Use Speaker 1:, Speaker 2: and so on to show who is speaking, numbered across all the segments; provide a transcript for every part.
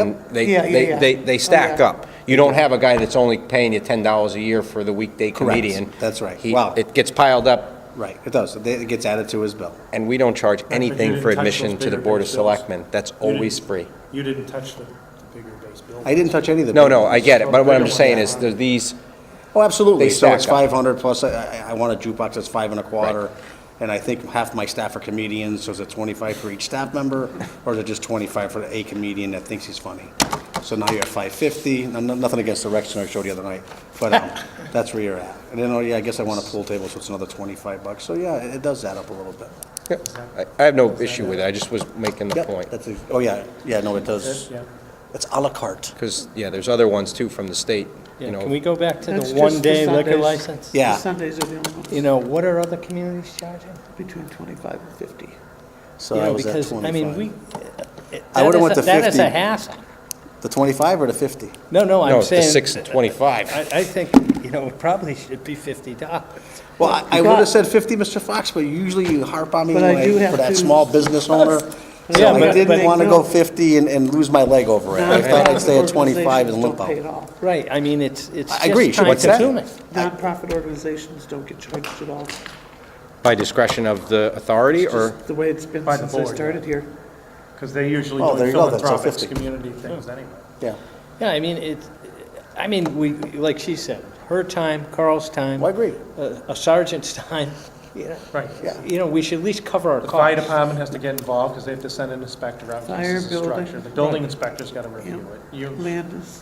Speaker 1: And
Speaker 2: Yep.
Speaker 1: they,
Speaker 2: Yeah, yeah,
Speaker 1: they,
Speaker 2: yeah. Oh,
Speaker 1: they, they stack
Speaker 2: yeah.
Speaker 1: up. You don't have a guy that's only paying you ten dollars a year for the weekday comedian.
Speaker 2: That's right.
Speaker 1: He-
Speaker 2: Wow.
Speaker 1: It gets piled up,
Speaker 2: Right, it does. It it gets added to his bill.
Speaker 1: and we don't charge
Speaker 3: but you
Speaker 1: anything
Speaker 3: didn't
Speaker 1: for
Speaker 3: touch
Speaker 1: admission
Speaker 3: those
Speaker 1: to the
Speaker 3: bigger
Speaker 1: Board of
Speaker 3: base bills.
Speaker 1: Selectmen. That's
Speaker 3: You didn't-
Speaker 1: always free.
Speaker 3: You didn't touch the the bigger base building.
Speaker 2: I didn't touch any of the.
Speaker 1: No,
Speaker 2: big
Speaker 1: no,
Speaker 2: ones.
Speaker 1: I get it, but what I'm
Speaker 3: Yeah.
Speaker 1: saying is, there's these,
Speaker 2: Oh, absolutely.
Speaker 1: They
Speaker 2: So it's
Speaker 1: stack up.
Speaker 2: 500 plus, I, I- I want a jukebox that's five and a quarter, and I think half my staff are comedians, so is it 25 for each staff member? Or is it just 25 for a comedian that thinks he's funny? So now you're at 550, No- no- nothing against the rec center I showed you the other night, but um, that's where you're at. And then, oh yeah, I guess I want a pool table, so it's another 25 bucks. So yeah, it it does add up a little bit.
Speaker 1: I I have no issue with it, I just was making the
Speaker 2: Yep,
Speaker 1: point.
Speaker 2: that's a- Oh yeah, yeah, no, it does.
Speaker 3: Yeah.
Speaker 2: It's à la carte.
Speaker 1: Because, yeah, there's other ones too from the state, you
Speaker 4: Yeah,
Speaker 1: know.
Speaker 4: can we go back to
Speaker 5: That's
Speaker 4: the
Speaker 5: just
Speaker 4: one-day
Speaker 5: for
Speaker 4: liquor
Speaker 5: Sundays.
Speaker 4: license?
Speaker 2: Yeah.
Speaker 5: Sundays are the only ones,
Speaker 4: You know, what are other communities charging?
Speaker 5: between 25 and 50.
Speaker 2: So
Speaker 4: You
Speaker 2: I
Speaker 4: know,
Speaker 2: was at
Speaker 4: because, I mean, we.
Speaker 2: 25.
Speaker 4: it-
Speaker 2: I
Speaker 4: that
Speaker 2: would've
Speaker 4: is
Speaker 2: went
Speaker 4: a-
Speaker 2: to
Speaker 4: That is
Speaker 2: 50.
Speaker 4: a hassle.
Speaker 2: The 25 or the 50?
Speaker 4: No, no,
Speaker 1: No,
Speaker 4: I'm
Speaker 1: it's
Speaker 4: saying.
Speaker 1: the six and twenty-five.
Speaker 4: I, I think, you know, it probably should be fifty dollars.
Speaker 2: Well, I- I would have said 50, Mr. Fox, but usually you harp on me
Speaker 5: But I do
Speaker 2: like,
Speaker 5: have
Speaker 2: for that
Speaker 5: to-
Speaker 2: small business owner. So
Speaker 4: Yeah,
Speaker 2: I
Speaker 4: but-
Speaker 2: didn't
Speaker 4: but-
Speaker 2: want to go 50 and, and lose my leg over it. I thought I'd stay at 25 and limp
Speaker 5: Nonprofit organizations Don't
Speaker 2: out.
Speaker 5: pay at all.
Speaker 4: Right, I mean, it's, it's
Speaker 2: I agree,
Speaker 4: just
Speaker 2: sure,
Speaker 4: time
Speaker 2: what's that?
Speaker 4: consuming.
Speaker 5: Nonprofit organizations don't get charged at all.
Speaker 1: By discretion of the authority, or,
Speaker 5: Just the way it's been
Speaker 3: By the
Speaker 5: since I
Speaker 3: board, yeah.
Speaker 5: started here.
Speaker 3: Because they usually
Speaker 2: Oh, there
Speaker 3: do
Speaker 2: you go, that's all
Speaker 3: philanthropic
Speaker 2: 50.
Speaker 3: community things anyway.
Speaker 2: Yeah.
Speaker 4: Yeah, I mean, it's, I mean, we, like she said, her time, Carl's time.
Speaker 2: Well, I agree.
Speaker 4: a- A sergeant's time, you know,
Speaker 3: Right.
Speaker 4: you know, we should at least cover our
Speaker 3: The fire
Speaker 4: costs.
Speaker 3: department has to get involved because they have to send an inspector out. 'cause
Speaker 5: Fire,
Speaker 3: this is a
Speaker 5: building.
Speaker 3: structure. The building inspector's got to review it. You, Um,
Speaker 5: Land is,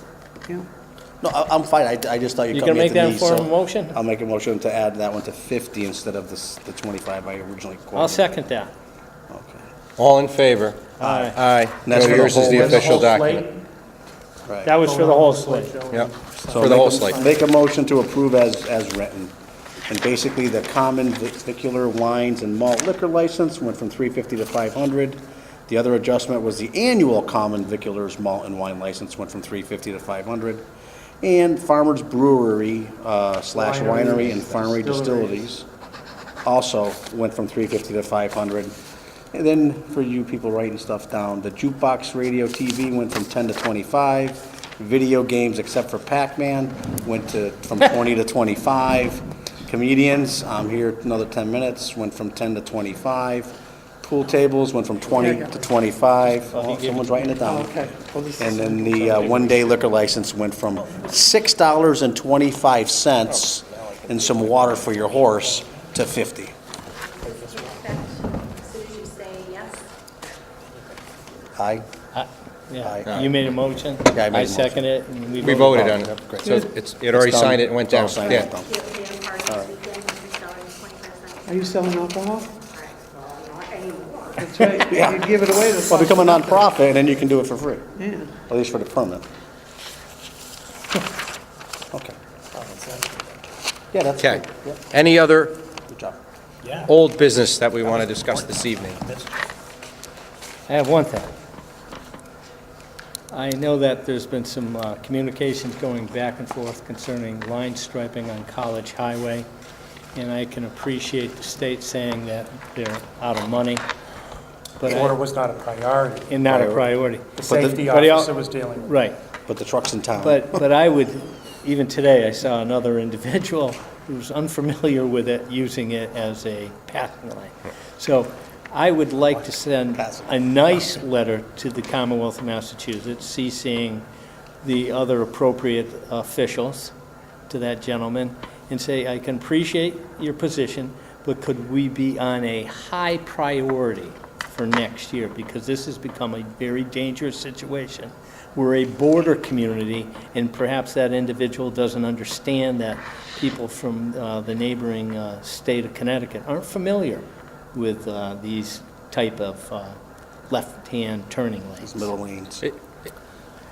Speaker 5: yeah.
Speaker 2: No, I, I'm fine. I, I just thought you
Speaker 4: You
Speaker 2: cut
Speaker 4: gonna
Speaker 2: me at
Speaker 4: make
Speaker 2: the
Speaker 4: that a
Speaker 2: knee, so.
Speaker 4: formal motion?
Speaker 2: I'll make a motion to add that one to 50 instead of this, the 25 I originally quoted.
Speaker 4: I'll second that.
Speaker 2: Okay.
Speaker 1: all in favor?
Speaker 4: Aye.
Speaker 1: Aye.
Speaker 2: And that's
Speaker 1: No,
Speaker 2: for the
Speaker 1: yours is
Speaker 2: whole-
Speaker 1: the
Speaker 2: that's the
Speaker 1: official
Speaker 3: whole slate?
Speaker 1: document.
Speaker 2: Right.
Speaker 4: That was for the whole slate.
Speaker 1: Yep,
Speaker 2: So
Speaker 1: for the
Speaker 2: make
Speaker 1: whole
Speaker 2: a-
Speaker 1: slate.
Speaker 2: Make a motion to approve as, as written. And basically, the common vicular wines and malt liquor license went from 350 to 500. The other adjustment was the annual common viculars malt and wine license went from 350 to 500. And Farmers Brewery uh, slash winery and farmery distilleries also went from 350 to 500. And then for you people writing stuff down, the jukebox radio TV went from 10 to 25. Video games, except for Pac-Man, went to, from 20 to 25. Comedians, I'm here another 10 minutes, went from 10 to 25. Pool tables went from 20 to 25. Oh, Someone's writing it down.
Speaker 5: Okay. Well, this
Speaker 2: And
Speaker 5: is-
Speaker 2: then the uh, one-day liquor license went from $6.25 and some water for your horse to 50.
Speaker 6: Do you expect, as soon as you say yes,
Speaker 2: Aye?
Speaker 4: I- Yeah,
Speaker 2: Aye.
Speaker 4: you made a motion.
Speaker 2: Yeah, I made a motion.
Speaker 4: second it, and we
Speaker 1: We
Speaker 4: voted.
Speaker 1: voted on
Speaker 2: oh, Yep, great.
Speaker 1: it. So it's, it already
Speaker 2: done.
Speaker 1: signed it and went
Speaker 2: It's all
Speaker 1: down.
Speaker 2: signed and
Speaker 1: Yeah,
Speaker 2: done.
Speaker 6: you will be in party this weekend, and
Speaker 5: Are you
Speaker 6: you're selling twenty-five cents.
Speaker 5: selling alcohol?
Speaker 6: All right, well, not anymore.
Speaker 5: That's right.
Speaker 2: Yeah.
Speaker 5: You give it away to.
Speaker 2: Well, become a nonprofit, and then you can do it for free,
Speaker 5: Yeah.
Speaker 2: at least for the permit. Okay. Yeah, that's
Speaker 1: okay.
Speaker 2: good. Yep,
Speaker 1: Any other
Speaker 2: Good job.
Speaker 1: old business that we want to discuss this evening?
Speaker 4: I have one thing. I know that there's been some uh, communications going back and forth concerning line striping on College Highway, and I can appreciate the state saying that they're out of money, but,
Speaker 3: The order
Speaker 4: I-
Speaker 3: was not a priority.
Speaker 4: and not a priority.
Speaker 3: The safety
Speaker 4: but they all-
Speaker 3: officer was dealing with it.
Speaker 4: Right.
Speaker 2: But the truck's in town.
Speaker 4: But, but I would, even today, I saw another individual who's unfamiliar with it, using it as a passing lane. So I would like to send a nice letter to the Commonwealth of Massachusetts, CCing the other appropriate officials to that gentleman, and say, I can appreciate your position, but could we be on a high priority for next year? Because this has become a very dangerous situation. We're a border community, and perhaps that individual doesn't understand that people from uh, the neighboring uh, state of Connecticut aren't familiar with uh, these type of uh, left-hand turning lanes.
Speaker 2: It's middle lanes.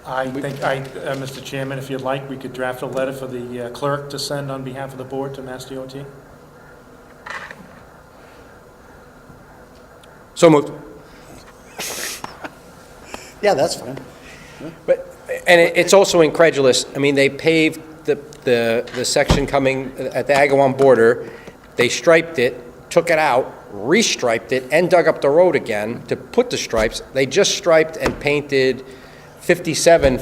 Speaker 3: I think, I, uh, Mr. Chairman, if you'd like, we could draft a letter for the uh, clerk to send on behalf of the board to Mass DOT.
Speaker 1: So moved.
Speaker 2: Yeah, that's fine.
Speaker 1: But, and it- it's also incredulous, I mean, they paved the, the, the section coming at the Agawam border, they striped it, took it out, restriped it, and dug up the road again to put the stripes. They just striped and painted 57